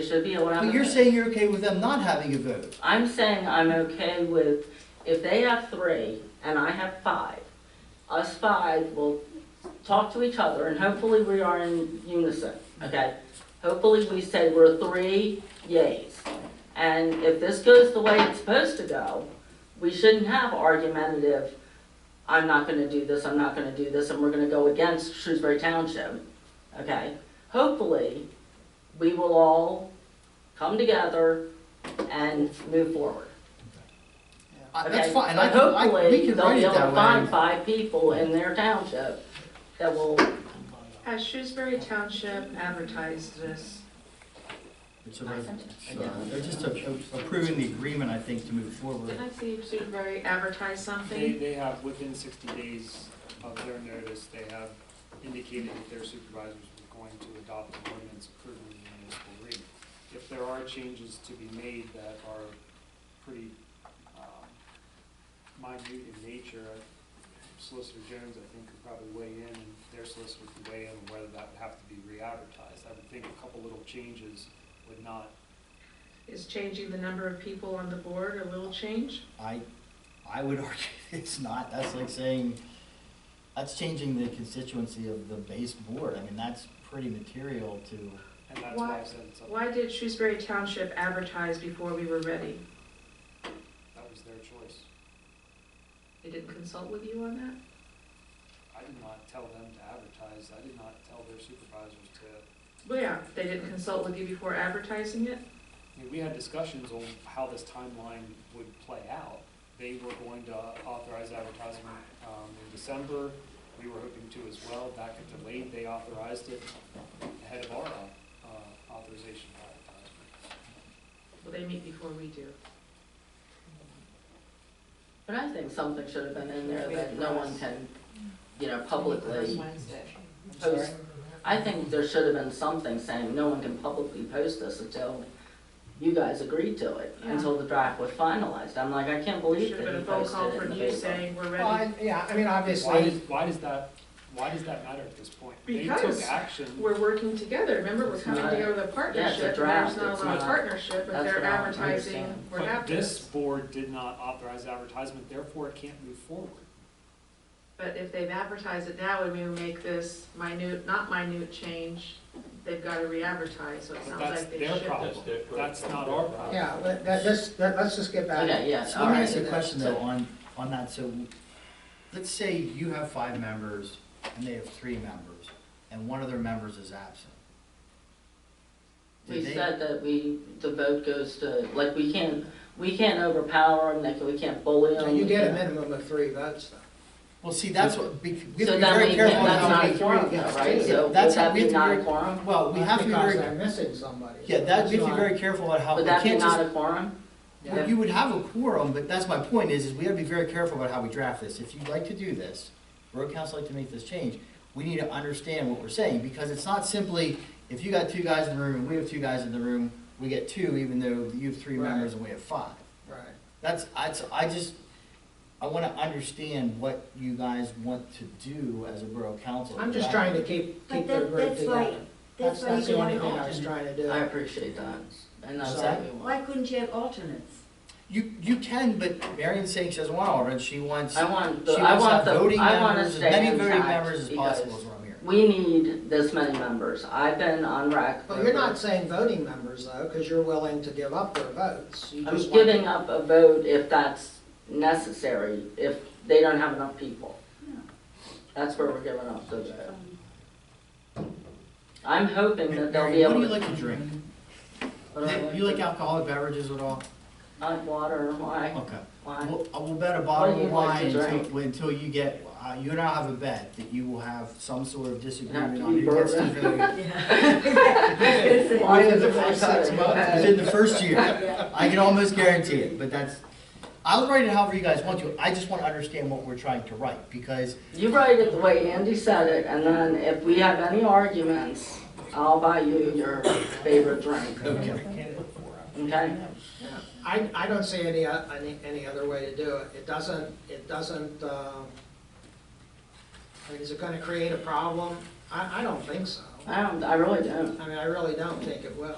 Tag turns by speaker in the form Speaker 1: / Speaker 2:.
Speaker 1: should be able to have a
Speaker 2: But you're
Speaker 1: vote.
Speaker 2: saying you're okay with them not having a vote.
Speaker 1: I'm saying I'm okay with, if they have three and I have five, us five will talk to each other and hopefully we are in unison, okay? Hopefully we say we're three yays. And if this goes the way it's supposed to go, we shouldn't have argumentative, I'm not gonna do this, I'm not gonna do this, and we're gonna go against Shrewsbury Township, okay? Hopefully, we will all come together and move forward.
Speaker 2: I-
Speaker 1: okay?
Speaker 2: That's fine, and I
Speaker 1: Uh, But
Speaker 2: can, I, we
Speaker 1: Hopefully,
Speaker 2: can
Speaker 1: they'll
Speaker 2: write
Speaker 1: be
Speaker 2: it
Speaker 1: able to find
Speaker 2: that way.
Speaker 1: five people in their township that will,
Speaker 3: Has Shrewsbury Township advertised this?
Speaker 2: It's a res- so They're just a- a- approving the agreement, I think, to move forward.
Speaker 3: Did I see Shrewsbury advertise
Speaker 4: They,
Speaker 3: something?
Speaker 4: they have, within sixty days of their notice, they have indicated that their supervisors are going to adopt an ordinance approving the municipal rate. If there are changes to be made that are pretty, um, minute in nature, Solicitor Jones, I think, could probably weigh in, and their solicitor could weigh in on whether that would have to be re-advertised. I would think a couple little changes would not
Speaker 3: Is changing the number of people on the board a little change?
Speaker 2: I, I would argue it's not, that's like saying, that's changing the constituency of the base board. I mean, that's pretty material to,
Speaker 4: And that's why I
Speaker 3: Why-
Speaker 4: said it's up,
Speaker 3: Why did Shrewsbury Township advertise before we were ready?
Speaker 4: that was their choice.
Speaker 3: They didn't consult with you on that?
Speaker 4: I did not tell them to advertise, I did not tell their supervisors to, I
Speaker 3: Well, yeah, they didn't consult with you before advertising it?
Speaker 4: mean, we had discussions on how this timeline would play out. They were going to authorize advertising, um, in December, we were hoping to as well, that got delayed, they authorized it ahead of our, uh, authorization for advertisement.
Speaker 3: Well, they meet before we do.
Speaker 1: but I think something should have been in there that no one can, you know, publicly post. I think there should have been something saying no one can publicly post this until you guys agreed to it,
Speaker 3: Yeah.
Speaker 1: until the draft was finalized. I'm like, I can't believe
Speaker 3: Should have
Speaker 1: that
Speaker 3: been
Speaker 1: he
Speaker 3: a phone
Speaker 1: posted
Speaker 3: call
Speaker 1: it in
Speaker 3: from
Speaker 1: the
Speaker 3: you
Speaker 1: paper.
Speaker 3: saying we're
Speaker 5: Well,
Speaker 3: ready,
Speaker 5: I- yeah, I mean,
Speaker 4: Why does,
Speaker 5: obviously,
Speaker 4: why does that, why does that matter at this point? They took
Speaker 3: Because
Speaker 4: action.
Speaker 3: we're working together, remember, we're
Speaker 1: It's
Speaker 3: coming
Speaker 1: not-
Speaker 3: together with a partnership, and
Speaker 1: draft,
Speaker 3: there's not
Speaker 1: it's
Speaker 3: a lot of
Speaker 1: not-
Speaker 3: partnership, but
Speaker 1: that's
Speaker 3: they're
Speaker 1: what I don't
Speaker 3: advertising,
Speaker 1: understand.
Speaker 3: we're
Speaker 4: But
Speaker 3: happy.
Speaker 4: this board did not authorize advertisement, therefore it can't move forward.
Speaker 3: But if they've advertised it now, and we make this minute, not minute change, they've gotta re-advertise, so it
Speaker 4: But
Speaker 3: sounds
Speaker 4: that's
Speaker 3: like they
Speaker 4: their
Speaker 3: should.
Speaker 4: problem. That's not our problem.
Speaker 5: yeah, let- that, let's, let- let's just get back.
Speaker 1: Okay, yeah,
Speaker 2: So
Speaker 1: all
Speaker 2: Let me
Speaker 1: right.
Speaker 2: ask you a question though on, on that, so, let's say you have five members and they have three members, and one of their members is absent. Do
Speaker 1: We
Speaker 2: they-
Speaker 1: said that we, the vote goes to, like, we can't, we can't overpower them, like, we can't bully
Speaker 5: So
Speaker 1: them.
Speaker 5: You get a minimum of three votes, though.
Speaker 2: Well, see, that's what, bec- we
Speaker 1: So
Speaker 2: have to
Speaker 1: then
Speaker 2: be very
Speaker 1: we, can't-
Speaker 2: careful
Speaker 1: that's
Speaker 2: how
Speaker 1: not
Speaker 2: we.
Speaker 1: a quorum, though,
Speaker 5: yeah,
Speaker 1: right?
Speaker 5: yeah,
Speaker 1: So would
Speaker 2: that's how
Speaker 1: that
Speaker 2: we
Speaker 1: be
Speaker 2: have to
Speaker 1: not
Speaker 2: be
Speaker 1: a
Speaker 2: very-
Speaker 1: quorum?
Speaker 2: Well, we have to be
Speaker 5: Because
Speaker 2: very,
Speaker 5: they're missing somebody.
Speaker 2: yeah, that, we have to be
Speaker 5: That's
Speaker 2: very careful about how, we
Speaker 1: Would that be
Speaker 2: can't
Speaker 1: not
Speaker 2: just,
Speaker 1: a quorum?
Speaker 2: well, you would have a quorum, but that's my point is, is we gotta be very careful about how we draft this. If you'd like to do this, Borough Council like to make this change, we need to understand what we're saying, because it's not simply, if you got two guys in the room and we have two guys in the room, we get two, even though you have three
Speaker 5: Right.
Speaker 2: members and we have five.
Speaker 5: Right.
Speaker 2: That's, I, I just, I wanna understand what you guys want to do as a Borough Council.
Speaker 5: I'm just trying to keep,
Speaker 6: But
Speaker 5: keep the
Speaker 6: that,
Speaker 5: group
Speaker 6: that's why,
Speaker 5: together.
Speaker 6: that's
Speaker 5: That's,
Speaker 6: why you
Speaker 5: that's the
Speaker 6: can
Speaker 5: only
Speaker 6: have an
Speaker 5: thing I was
Speaker 6: alternate.
Speaker 5: trying to
Speaker 1: I
Speaker 5: do.
Speaker 1: appreciate that, and that's
Speaker 2: Sorry?
Speaker 1: what we
Speaker 6: Why
Speaker 1: want.
Speaker 6: couldn't you have alternates?
Speaker 2: You, you can, but Marion's saying she doesn't want Alderman, she wants,
Speaker 1: I
Speaker 2: she
Speaker 1: want, the- I
Speaker 2: wants to
Speaker 1: want
Speaker 2: have
Speaker 1: the,
Speaker 2: voting
Speaker 1: I want to
Speaker 2: members, as
Speaker 1: stay
Speaker 2: many voting
Speaker 1: intact,
Speaker 2: members as
Speaker 1: because
Speaker 2: possible is what I'm hearing.
Speaker 1: we need this many members. I've been on rec.
Speaker 5: But you're not saying voting members, though, because you're willing to give up their votes. You
Speaker 1: I'm
Speaker 5: just want-
Speaker 1: giving up a vote if that's necessary, if they don't have enough people.
Speaker 6: No.
Speaker 1: That's where we're giving up the vote. I'm hoping that they'll be
Speaker 2: Marion,
Speaker 1: able
Speaker 2: what do you
Speaker 1: to.
Speaker 2: like to drink?
Speaker 1: what do I
Speaker 2: You like
Speaker 1: to-
Speaker 2: alcoholic beverages at all?
Speaker 1: I like water, wine,
Speaker 2: Okay.
Speaker 1: wine.
Speaker 2: We'll, we'll bet
Speaker 1: What
Speaker 2: a
Speaker 1: do
Speaker 2: bottle of
Speaker 1: you like to
Speaker 2: wine
Speaker 1: drink?
Speaker 2: until, until you get, uh, you and I have a bet that you will have some sort of disagreement
Speaker 1: to
Speaker 2: on
Speaker 1: be
Speaker 2: who gets to vote. Within the first six months, within the first year. I can almost guarantee it, but that's, I'll write it however you guys want to. I just want to understand what we're trying to write, because
Speaker 1: You write it the way Andy said it, and then if we have any arguments, I'll buy you your favorite drink,
Speaker 2: Okay.
Speaker 1: okay?
Speaker 5: I, I don't see any, o- any, any other way to do it. It doesn't, it doesn't, um, I mean, is it gonna create a problem? I, I don't think so.
Speaker 1: I don't, I really don't.
Speaker 5: I mean, I really don't think it will.